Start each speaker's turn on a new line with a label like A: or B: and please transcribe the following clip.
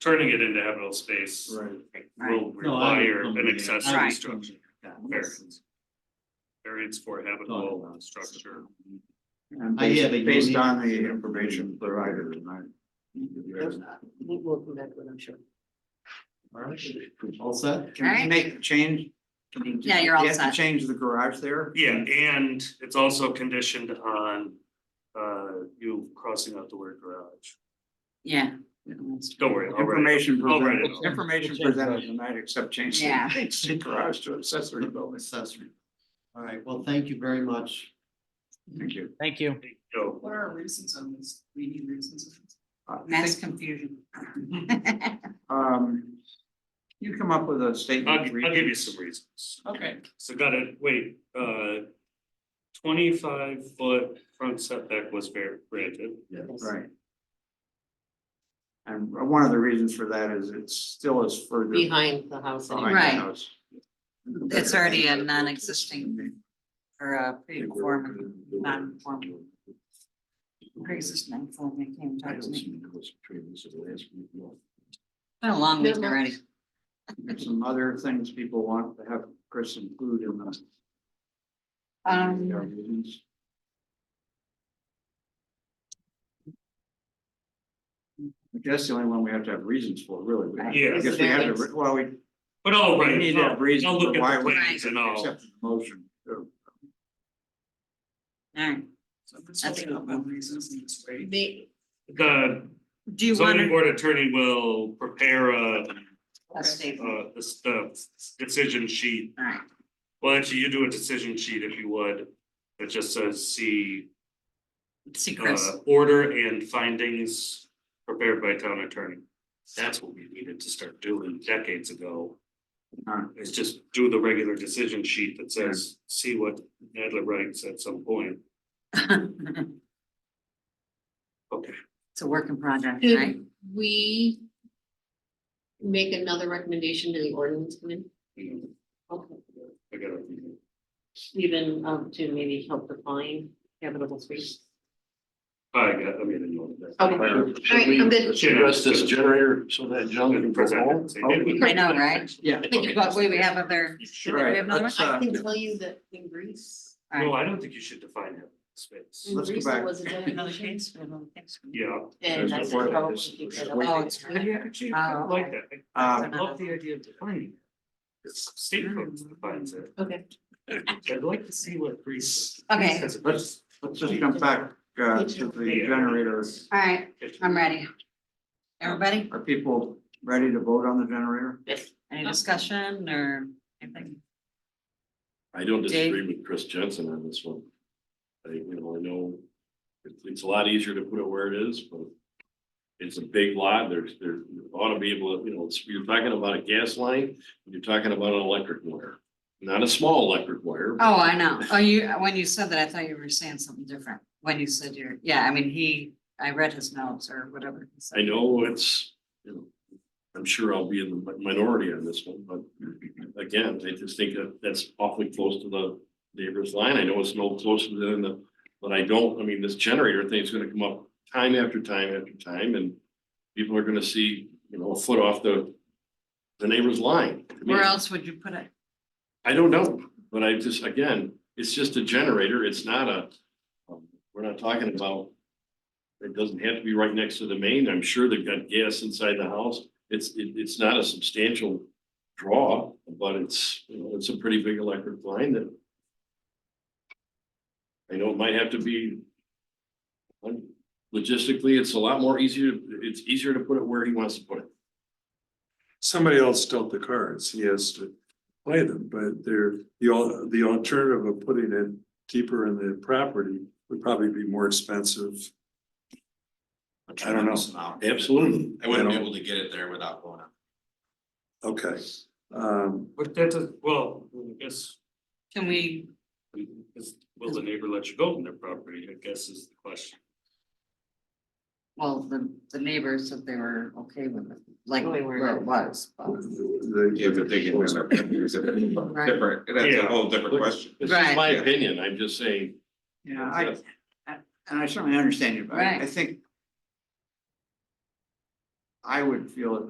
A: turning it into habitable space
B: Right.
A: will
B: No, I
A: require
B: don't
A: an
B: believe it. I
A: accessory
B: don't
A: structure,
B: believe it. Yeah,
A: Fair.
B: it's
A: variance for
B: talking
A: habitable
B: about-
A: structure.
C: And
B: I have a
C: based, based
B: unique-
C: on the information provided tonight.
D: We'll, we'll come back with, it, I'm sure.
B: All right, all set?
C: Can we
E: Alright.
C: make the change? Can we-
E: Yeah, you're all
C: You have
E: set.
C: to change the garage there?
A: Yeah, and it's also conditioned on uh you crossing out the word garage.
E: Yeah.
A: Don't worry, I'll write it.
C: Information
A: I'll write it
C: presented,
A: all.
C: information
B: Change
C: presented
B: garage.
C: tonight except change the-
E: Yeah.
C: change the garage to accessory building.
B: Accessory. All right, well, thank you very much.
C: Thank you.
F: Thank you.
A: So,
D: What are our reasons on this? We need reasons.
C: Uh, I
E: Mass
C: think,
E: confusion.
C: Um, you come up with a
A: I'll
C: statement.
A: I'll
C: of
A: give you
C: reasons.
A: some reasons.
D: Okay.
A: So gotta, wait, uh. Twenty-five foot front setback was very granted,
C: Right. And uh, one of the reasons for that is it still is further.
D: Behind the house.
C: behind the
E: Right.
C: house.
E: It's already a non-existing or uh, a pre-conforming, non-conforming, pre-existing non-conforming, came talk to me. Been a long week already.
C: There's Some other things people want to have Chris include in the.
E: Um,
C: I guess the only one we have to have reasons for, really. We have-
A: Yeah.
C: I guess we have to, well, we
A: but all
C: we
A: right,
C: need to have
A: I'll
C: reasons
A: I'll look
C: for why
A: at the
C: we
A: plans and all.
C: accept the motion. So,
E: all right.
D: So this will be up on reasons in this way.
E: The,
A: The
E: do you want
A: zoning
E: to?
A: board attorney will prepare a
E: A statement,
A: uh this the decision sheet.
E: all right.
A: Well, actually, you do a decision sheet if you would, that just says see
E: See Chris,
A: uh order and findings prepared by town attorney. That's what we needed to start doing decades ago.
C: Alright.
A: Is just do the regular decision sheet that says, see what Nadler writes at some point.
E: it's
A: Okay,
E: a work in progress, right?
G: Should we make another recommendation to the ordinance committee?
A: you know,
G: Okay.
A: I gotta,
G: Even um to maybe help define habitable space?
A: I got, I made a note of that.
G: Okay. All right, I'm good.
A: Should
H: address this generator so that John can go home?
E: I know, right?
C: Yeah.
E: Think about, wait, we have other, do we have
C: Right,
E: another one?
C: let's,
G: I
C: uh,
G: can tell you that in Greece,
E: All right.
A: No, I don't think you should define it space.
G: in
E: Mm.
C: Let's go
G: Greece,
C: back.
G: there was a
E: Another
G: generation.
E: case, we have another case.
A: Yeah,
G: And
C: There's
G: that's
C: no
G: how we
C: ordinance.
G: keep
C: There's
G: it
C: no
E: Oh,
G: up.
E: it's.
A: I actually
E: Oh, okay.
A: like that. I
C: Um,
A: I love the idea of defining. it. It's state code that defines it.
G: Okay.
A: I'd like to see what Greece.
E: Okay.
A: Says about
C: Let's, let's just jump back uh to the generator.
E: All right,
A: it.
E: I'm ready. Everybody,
C: Are people ready to vote on the generator?
E: any discussion or anything?
H: I don't disagree with Chris Jensen on this one. I, you know, I know it's, it's a lot easier to put it where it is, but it's a big lot. There's, there ought to be able to, you know, it's- you're talking about a gas line, you're talking about an electric wire. Not a small electric wire.
E: Oh, I know. Oh, you, when you said that, I thought you were saying something different. When you said you're, yeah, I mean, he, I read his notes or whatever. he said.
H: I know it's, you know, I'm sure I'll be in the mi- minority on this one, but again, I just think that that's awfully close to the neighbor's line. I know it's no closer than the, but I don't, I mean, this generator thing is gonna come up time after time after time and people are gonna see, you know, a foot off the the neighbor's line. I mean,
E: Where else would you put it?
H: I don't know, but I just, again, it's just a generator. It's not a, um, we're not talking about. It doesn't have to be right next to the main. I'm sure they've got gas inside the house. It's, it, it's not a substantial draw, but it's, you know, it's a pretty big electric line that. I know it might have to be. um, Logistically, it's a lot more easier, it's easier to put it where he wants to put it.
I: somebody else stole the cards, he has to play them, but they're, the al- the alternative of putting it deeper in the property would probably be more expensive. I don't know.
H: Absolutely.
I: I wouldn't be able to get it there without going up. Okay, um,
A: But that does, well, I guess,
E: Can we,
A: is- will the neighbor let you go on their property, I guess is the question.
E: well, the, the neighbors said they were okay with it, like
G: No, they weren't.
E: where it was. but-
I: the.
J: Yeah, but they can, it's a different, that's a whole different question.
H: This is my
J: Right.
H: opinion. I'm just saying.
C: Yeah, I, I- and I certainly understand you, but I I
E: Right.
C: think I would feel it